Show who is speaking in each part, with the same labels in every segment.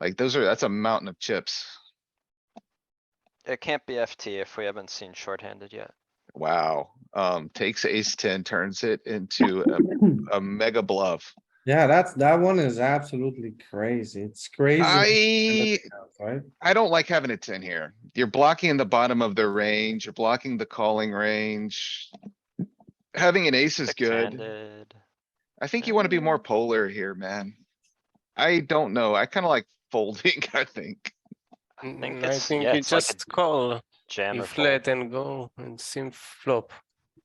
Speaker 1: Like those are, that's a mountain of chips.
Speaker 2: It can't be FT if we haven't seen shorthanded yet.
Speaker 1: Wow. Um, takes ace ten, turns it into a, a mega bluff.
Speaker 3: Yeah, that's, that one is absolutely crazy. It's crazy.
Speaker 1: I,
Speaker 3: Right?
Speaker 1: I don't like having a ten here. You're blocking the bottom of the range. You're blocking the calling range. Having an ace is good.
Speaker 2: Six-handed.
Speaker 1: I think you wanna be more polar here, man. I don't know. I kinda like folding, I think.
Speaker 2: I think
Speaker 4: Mm, I
Speaker 2: it's,
Speaker 4: think
Speaker 2: yeah,
Speaker 4: you
Speaker 2: it's like
Speaker 4: just
Speaker 2: a
Speaker 4: call,
Speaker 2: jam
Speaker 4: you
Speaker 2: or fold.
Speaker 4: flat and go and sim flop.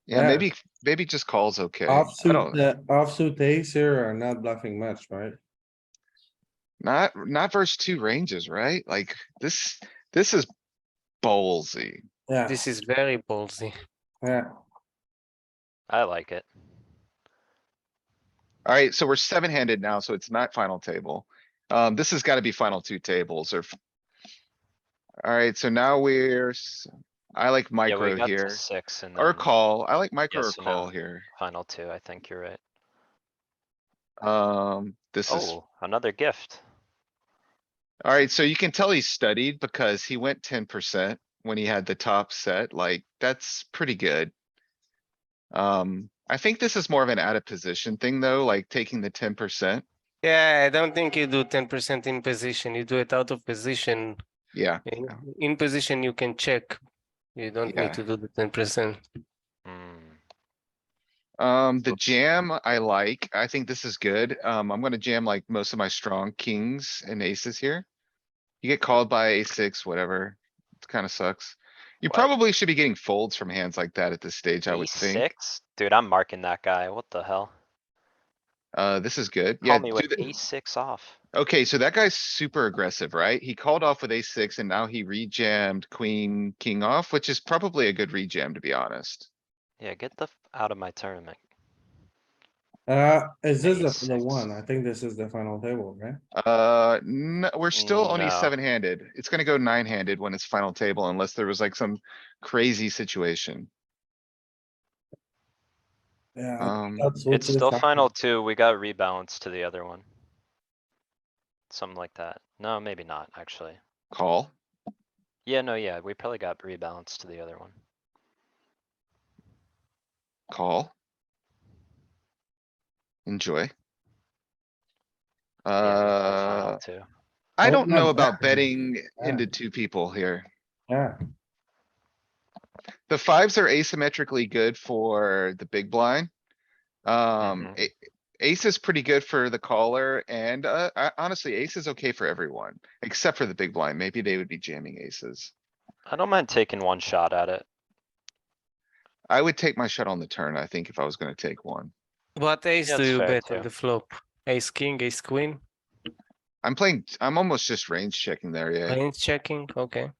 Speaker 1: Yeah,
Speaker 3: Yeah.
Speaker 1: maybe, maybe just calls okay. I
Speaker 3: Offsuit, uh,
Speaker 1: don't,
Speaker 3: the offsuit ace here are not bluffing much, right?
Speaker 1: not, not versus two ranges, right? Like this, this is ballsy.
Speaker 3: Yeah,
Speaker 4: This is very ballsy.
Speaker 3: yeah.
Speaker 2: I like it.
Speaker 1: Alright, so we're seven handed now, so it's not final table. Um, this has gotta be final two tables or. f- Alright, so now we're, s- I like
Speaker 2: Yeah, we
Speaker 1: micro
Speaker 2: got to
Speaker 1: here,
Speaker 2: six and
Speaker 1: or
Speaker 2: then
Speaker 1: call, I like micro or
Speaker 2: um, yes or no.
Speaker 1: call here.
Speaker 2: final two, I think you're right.
Speaker 1: Um, this is,
Speaker 2: Oh, another gift.
Speaker 1: alright, so you can tell he studied because he went ten percent when he had the top set, like, that's pretty good. Um, I think this is more of an out of position thing, though, like taking the ten percent,
Speaker 4: Yeah, I don't think you do ten percent in position. You do it out of position.
Speaker 1: yeah.
Speaker 4: In, in position, you can check. You don't
Speaker 1: Yeah.
Speaker 4: need to do the ten percent.
Speaker 2: Hmm,
Speaker 1: Um, the jam I like. I think this is good. Um, I'm gonna jam like most of my strong kings and aces here. You get called by a six, whatever. It kinda sucks. You
Speaker 2: What?
Speaker 1: probably should be getting folds from hands like that at this stage, I would think.
Speaker 2: E6? Dude, I'm marking that guy. What the hell?
Speaker 1: Uh, this is good. Yeah,
Speaker 2: Call me
Speaker 1: do
Speaker 2: with
Speaker 1: the-
Speaker 2: E6 off.
Speaker 1: okay, so that guy's super aggressive, right? He called off with a six and now he rejammed queen, king off, which is probably a good rejam, to be honest.
Speaker 2: Yeah, get the f- out of my tournament.
Speaker 3: Uh, is this the, the
Speaker 2: Ace-six.
Speaker 3: one? I think this is the final table, right?
Speaker 1: Uh, no, we're still only
Speaker 2: No.
Speaker 1: seven handed. It's gonna go nine handed when it's final table unless there was like some crazy situation.
Speaker 3: Yeah.
Speaker 1: Um,
Speaker 3: that's what
Speaker 2: It's
Speaker 3: this
Speaker 2: still
Speaker 3: happened.
Speaker 2: final two. We got rebalanced to the other one. Something like that. No, maybe not, actually.
Speaker 1: call.
Speaker 2: Yeah, no, yeah, we probably got rebalanced to the other one.
Speaker 1: Call. Enjoy.
Speaker 2: Yeah, we got final
Speaker 1: Uh,
Speaker 2: two.
Speaker 1: I
Speaker 3: Oh,
Speaker 1: don't
Speaker 3: no,
Speaker 1: know
Speaker 3: that-
Speaker 1: about betting
Speaker 3: yeah.
Speaker 1: into two people here.
Speaker 3: Yeah,
Speaker 1: The fives are asymmetrically good for the big blind. Um,
Speaker 2: Mhm.
Speaker 1: a- ace is pretty good for the caller and, uh, I- honestly, ace is okay for everyone, except for the big blind. Maybe they would be jamming aces.
Speaker 2: I don't mind taking one shot at it.
Speaker 1: I would take my shot on the turn, I think, if I was gonna take one.
Speaker 4: What ace do
Speaker 2: that's
Speaker 4: you
Speaker 2: fair
Speaker 4: bet on
Speaker 2: too.
Speaker 4: the flop? Ace king, ace queen,
Speaker 1: I'm playing, I'm almost just range checking there, yeah.
Speaker 4: range checking, okay.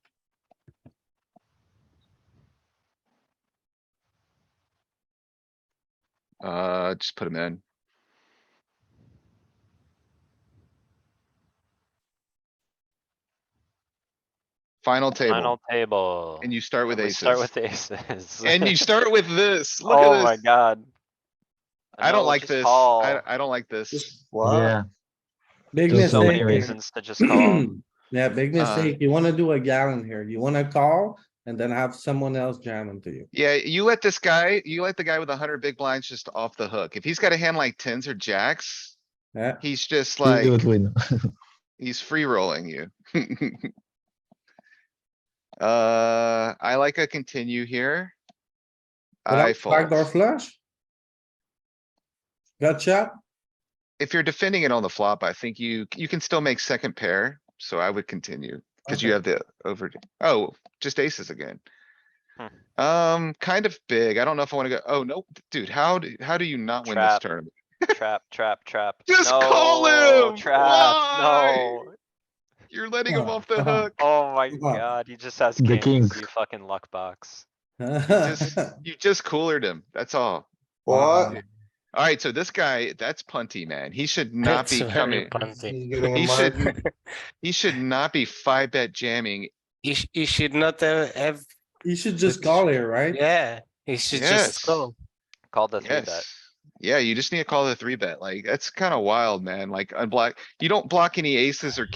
Speaker 1: Uh, just put him in. Final table,
Speaker 2: Final table.
Speaker 1: and you start with
Speaker 2: and we
Speaker 1: aces.
Speaker 2: Start with aces.
Speaker 1: And you start with this, look
Speaker 2: Oh my
Speaker 1: at this.
Speaker 2: god.
Speaker 1: I
Speaker 2: know,
Speaker 1: don't like
Speaker 2: just
Speaker 1: this.
Speaker 2: call.
Speaker 1: I, I don't like this.
Speaker 5: Yeah,
Speaker 3: big
Speaker 5: There's
Speaker 2: So many
Speaker 5: Same.
Speaker 3: mistake.
Speaker 2: reasons to just call.
Speaker 3: Yeah, big
Speaker 1: Uh,
Speaker 3: mistake. You wanna do a gallon here. You wanna call and then have someone else jam into you.
Speaker 1: Yeah, you let this guy, you let the guy with a hundred big blinds just off the hook. If he's got a hand like tens or jacks,
Speaker 3: Yeah,
Speaker 1: he's just
Speaker 5: like,
Speaker 1: like.
Speaker 5: you would win.
Speaker 1: He's free rolling you. Uh, I like a continue here. I
Speaker 3: without backdoor
Speaker 1: fold.
Speaker 3: flush. Gotcha.
Speaker 1: If you're defending it on the flop, I think you, you can still make second pair, so I would continue, cuz you
Speaker 3: Okay.
Speaker 1: have the over, oh, just aces again.
Speaker 2: Hmm.
Speaker 1: Um, kind of big. I don't know if I wanna go, oh, no, dude, how, do how do you not win this
Speaker 2: Trap.
Speaker 1: tournament?
Speaker 2: Trap, trap, trap.
Speaker 1: Just call
Speaker 2: No,
Speaker 1: him!
Speaker 2: Trap,
Speaker 1: Why?
Speaker 2: no.
Speaker 1: You're letting him
Speaker 3: Oh,
Speaker 1: off the
Speaker 3: come on.
Speaker 1: hook.
Speaker 2: Oh my
Speaker 3: Come on.
Speaker 2: god, he just has
Speaker 5: The
Speaker 2: kings,
Speaker 5: kings.
Speaker 2: you fucking luck box.
Speaker 1: Just- You just coolered him, that's all.
Speaker 3: What?
Speaker 1: Alright, so this guy, that's punty, man. He should not
Speaker 4: That's
Speaker 1: be
Speaker 4: very
Speaker 1: coming.
Speaker 4: punty.
Speaker 1: He should, he should not be five bet jamming.
Speaker 4: He, sh- he should not have, have,
Speaker 3: You should just call here, right?
Speaker 4: yeah, he should
Speaker 1: Yes.
Speaker 4: just go.
Speaker 2: Called the three bet.
Speaker 1: Yes. Yeah, you just need to call the three bet. Like, that's kinda wild, man. Like unblock, you don't block any aces or